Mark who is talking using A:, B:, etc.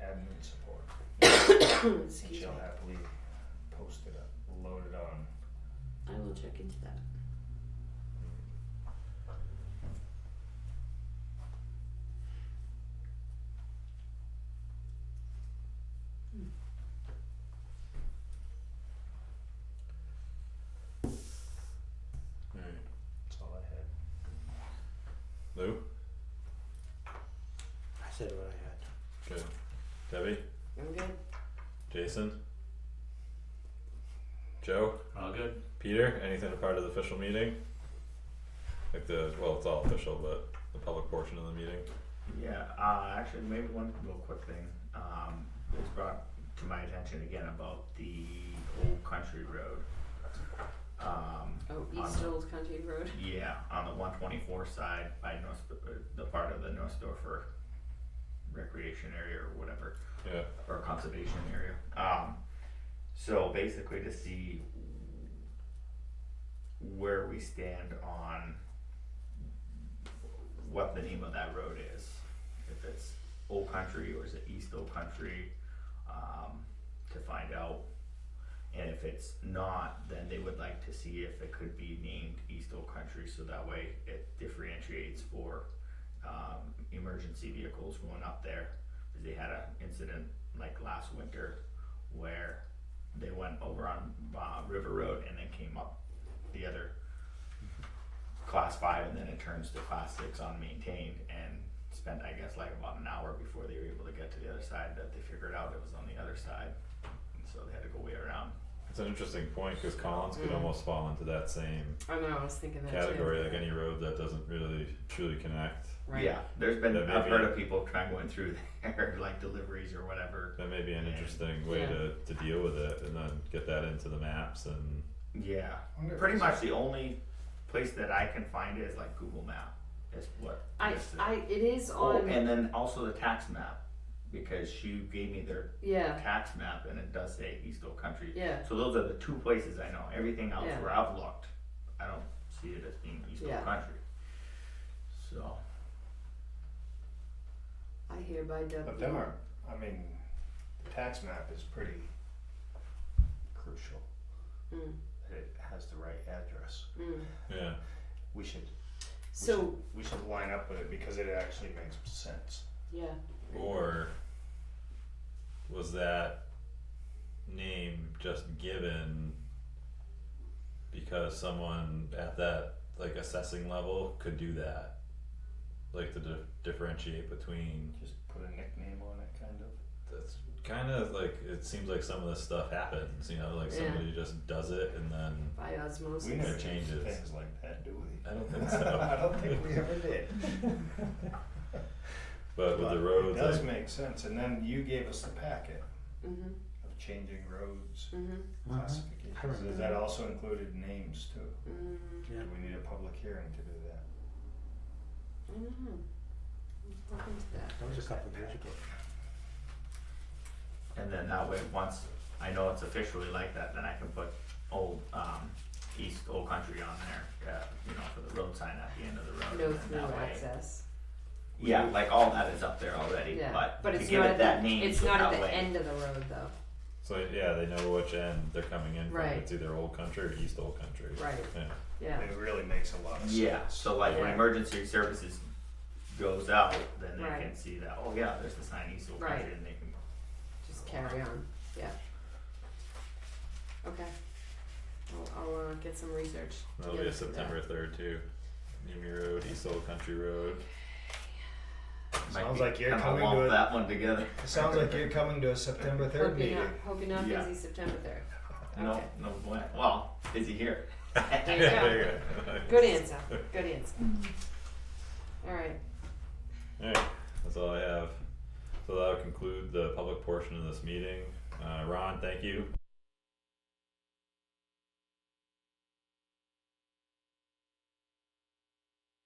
A: admin support. And
B: Excuse me.
A: she'll happily post it up, load it on.
B: I will check into that.
C: Alright.
A: That's all I had.
C: Lou?
D: I said what I had.
C: Good. Debbie?
B: I'm good.
C: Jason? Joe?
E: All good.
C: Peter? Anything a part of the official meeting? Like the, well, it's all official, but the public portion of the meeting?
F: Yeah, uh, actually, maybe one little quick thing, um, it was brought to my attention again about the old country road. Um,
B: Oh,
F: on
B: East
F: the-
B: Old Country Road.
F: yeah, on the one twenty-four side by North, uh, the part of the North Dorfer recreation area or whatever,
C: Yeah.
F: or conservation area. Um, so basically to see where we stand on what the name of that road is. If it's Old Country or is it East Old Country, um, to find out. And if it's not, then they would like to see if it could be named East Old Country, so that way it differentiates for, um, emergency vehicles going up there. Cause they had an incident like last winter where they went over on, uh, River Road and then came up the other class five and then it turns to class six unmaintained and spent I guess like about an hour before they were able to get to the other side that they figured out it was on the other side. And so they had to go way around.
C: It's an interesting point because Collins could almost fall into that same
B: I know, I was thinking Mm. that
C: category,
B: too.
C: like any road that doesn't really truly connect.
B: Right.
F: Yeah. There's been
C: That may
F: I've
C: be-
F: heard of people trying going through there like deliveries or whatever.
C: That may be an interesting way
B: Yeah.
C: to, to deal with it and then get that into the maps and
F: Yeah.
A: Wonder if
F: Pretty
A: it's-
F: much the only place that I can find it is like Google Map is what
B: I,
F: lists it.
B: I, it is
F: Oh,
B: on.
F: and then also the tax map because she gave me their
B: yeah.
F: tax map and it does say East Oak Country.
B: Yeah.
F: So those are the two places I know. Everything else
B: Yeah.
F: where I've looked, I don't see it as being East
B: Yeah.
F: Oak Country. So
B: I hereby dub.
A: But
B: thee.
A: them are, I mean, the tax map is pretty crucial.
D: Hmm.
B: Mm.
A: That it has the right address.
B: Mm.
C: yeah.
A: We should, we
B: So,
A: should, we should line up with it because it actually makes sense.
B: yeah.
C: Or was that name just given because someone at that like assessing level could do that? Like to di- differentiate between
A: Just put a nickname on it, kind of.
C: that's kind of like it seems like some of this stuff happens, you know, like
B: Yeah.
C: somebody just does it and then
B: By osmosis.
A: We never changed
C: changes.
A: things like that, do we?
C: I don't think so.
A: I don't think we ever did.
C: but with the roads
A: It does
C: like,
A: make sense, and then you gave us the packet
B: Mhm.
A: of changing roads
B: Mhm.
D: I
A: classifications,
D: remember.
A: is that also included names too?
B: Mm.
D: Yeah.
A: Do we need a public hearing to do that?
B: I don't know. I'll look into that.
D: That was a couple of years ago.
F: and then that way once I know it's officially like that, then I can put old um, East Old Country on there. Uh, you know, for the road sign at the end of the road.
B: No
F: and then
B: through
F: that way-
B: access.
F: Yeah, like all that is up there already.
B: Yeah.
F: But, to
B: it's
F: give
B: not
F: it
B: at
F: that
B: the,
F: name.
B: It's
F: so
B: not
F: that
B: at the
F: way,
B: end of the road though.
C: so yeah, they know which end they're coming in from.
B: Right.
C: It's either old country or east old country.
B: Right.
C: Yeah.
B: Yeah.
A: It really makes a lot of sense.
F: Yeah, so like when
B: Yeah.
F: emergency services goes out, then they
B: Right.
F: can see that, oh yeah, there's the sign East Oak
B: Right.
F: Country, and they can.
B: Just carry on. Yeah. Okay. I'll, I'll uh, get some research.
C: That'll be
B: together
C: a
B: for that.
C: September third too. Nimi Road, East Old Country Road.
F: might
A: Sounds
F: be
A: like you're
F: kinda
A: coming
F: lump
A: to a-
F: that one together.
A: It sounds like you're coming to a September third
B: Hope you're
A: meeting.
B: not, hope you're not
F: Yeah.
B: busy September third.
F: No,
B: Okay.
F: no, way. well, is he here?
B: There you go.
C: there you go.
B: Good answer. Good answer.
A: Mm.
B: All right.
C: Alright, that's all I have. So that'll conclude the public portion of this meeting. Uh, Ron, thank you.